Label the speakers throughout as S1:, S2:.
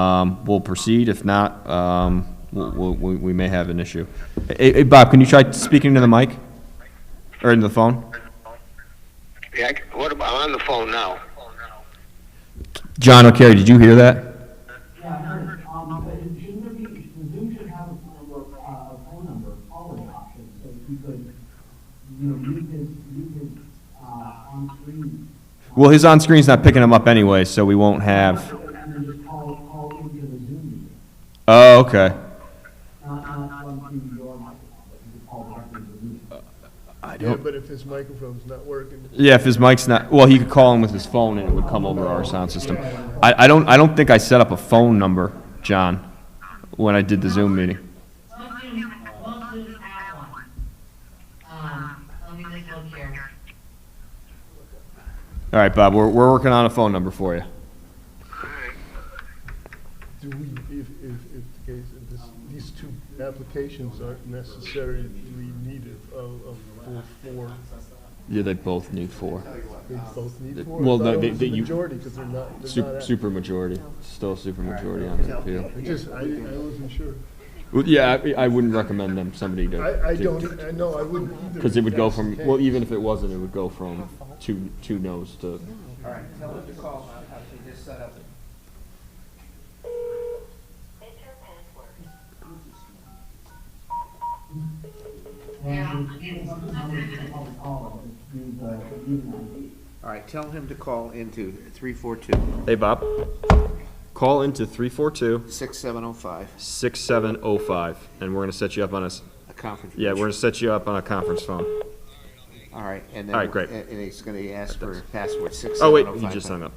S1: um, we'll proceed. If not, um, we'll- we'll- we we may have an issue. Hey, hey, Bob, can you try speaking into the mic? Or into the phone?
S2: Yeah, I c- what about, I'm on the phone now.
S1: John O'Carroll, did you hear that?
S3: Yeah, I heard, um, but it- shouldn't there be, Zoom should have a phone number, uh, a phone number calling option, so if you could, you know, use his, use his, uh, on screen.
S1: Well, his on-screen's not picking him up anyway, so we won't have,
S3: And then just call, call into the Zoom meeting,
S1: oh, okay.
S3: not, not run through your microphone, but you could call directly to the Zoom.
S1: I
S4: Yeah, but if his microphone's not working,
S1: Yeah, if his mic's not, well, he could call in with his phone and it would come over our sound system. I, I don't, I don't think I set up a phone number, John, when I did the Zoom meeting.
S5: Love Zoom, love Zoom app one. Um, let me just look here.
S1: All right, Bob, we're, we're working on a phone number for you.
S4: do we, if, if, if the case, if this, these two applications aren't necessarily needed of, of full four,
S1: Yeah, they both need four.
S4: they both need four?
S1: Well,
S4: I thought
S1: no,
S4: it
S1: they-
S4: was
S1: they-
S4: the
S1: you-
S4: Majority, because they're not, they're not.
S1: Super,
S4: act-
S1: super majority, still super majority on the appeal.
S4: I just, I, I wasn't sure.
S1: Well, yeah, I, I wouldn't recommend them, somebody to.
S4: I, I don't, I know, I wouldn't either.
S1: Because it
S4: if
S1: would go
S4: that's the
S1: from,
S4: case.
S1: well, even if it wasn't, it would go from two, two no's to,
S6: All right, tell them to call, I'll have to just set up.
S3: And if you want to call, just call, just uh, use the Zoom ID.
S6: All right, tell him to call into three four two
S1: hey, Bob, call into three four two
S6: six seven oh five,
S1: six seven oh five, and we're gonna set you up on a, s-
S6: a conference.
S1: yeah, we're
S6: room.
S1: gonna set you up on a conference phone.
S6: All right, and then.
S1: All right, great.
S6: And and he's gonna ask for password
S1: Oh,
S6: six seven oh
S1: wait,
S6: five.
S1: he just hung up.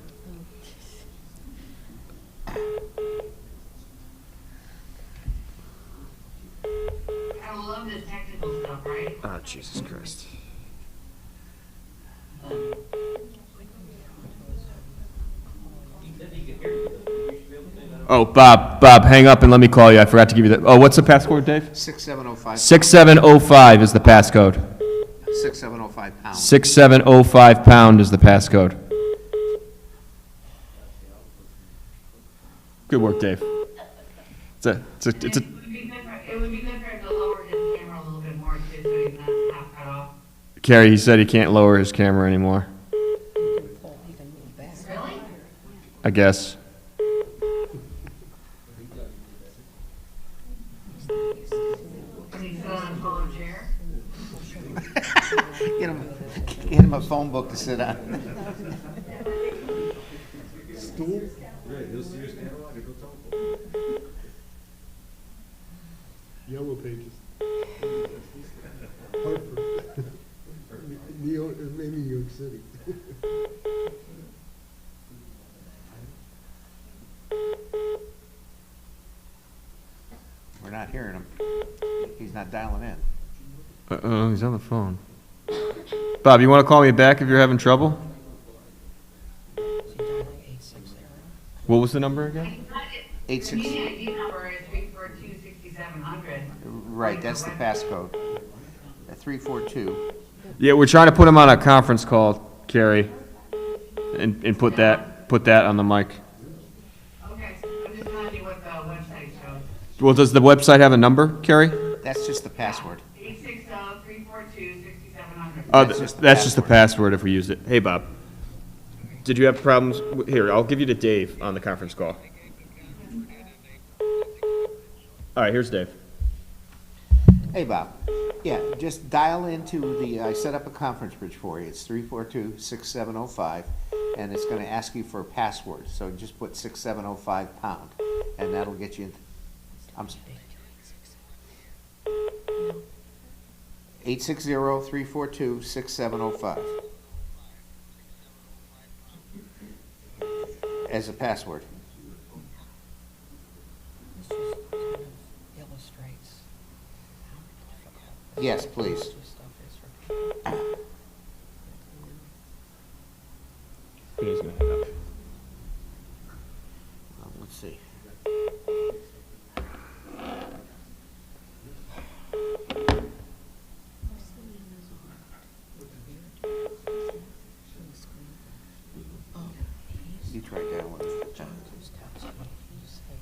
S5: I love this technical stuff, right?
S1: Ah, Jesus Christ. Oh, Bob, Bob, hang up and let me call you. I forgot to give you the, oh, what's the passcode, Dave?
S6: Six seven oh five,
S1: Six seven oh five is the passcode.
S6: six seven oh five pound.
S1: Six seven oh five pound is the passcode. Good work, Dave. It's a, it's a, it's a,
S5: It would be good for, it would be good for him to lower his camera a little bit more too, so he's not half cut off.
S1: Carrie, he said he can't lower his camera anymore,
S5: Really?
S1: I guess.
S5: Because he's still in a folding chair?
S6: Get him, get him a phone book to sit on.
S4: Yellow pages. Harper. New York, maybe New York City.
S6: We're not hearing him. He's not dialing in.
S1: Uh-oh, he's on the phone. Bob, you want to call me back if you're having trouble? What was the number again?
S5: It's not- it-
S6: Eight
S5: The
S6: six,
S5: meeting ID number is three four two sixty-seven hundred.
S6: right, that's the passcode. Three four two,
S1: Yeah, we're trying to put him on a conference call, Carrie, and, and put that, put that on the mic.
S5: Okay, I'm just telling you what the website shows.
S1: Well, does the website have a number, Carrie?
S6: that's just the password.
S5: Eight six oh three four two sixty-seven hundred. Oh,
S1: Uh,
S6: That's
S1: th-
S6: just the
S1: that's just the password if we used it. Hey, Bob. Did you have problems? w- Here, I'll give you to Dave on the conference call. All right, here's Dave.
S6: Hey, Bob. Yeah, just dial into the, I set up a conference bridge for you. It's three four two six seven oh five, and it's gonna ask you for a password, so just put six seven oh five pound, and that'll get you in. I'm. Eight six zero three four two six seven oh five. As a password.
S7: This just kind of illustrates how difficult
S6: Yes, please.
S7: this stuff
S6: Oh,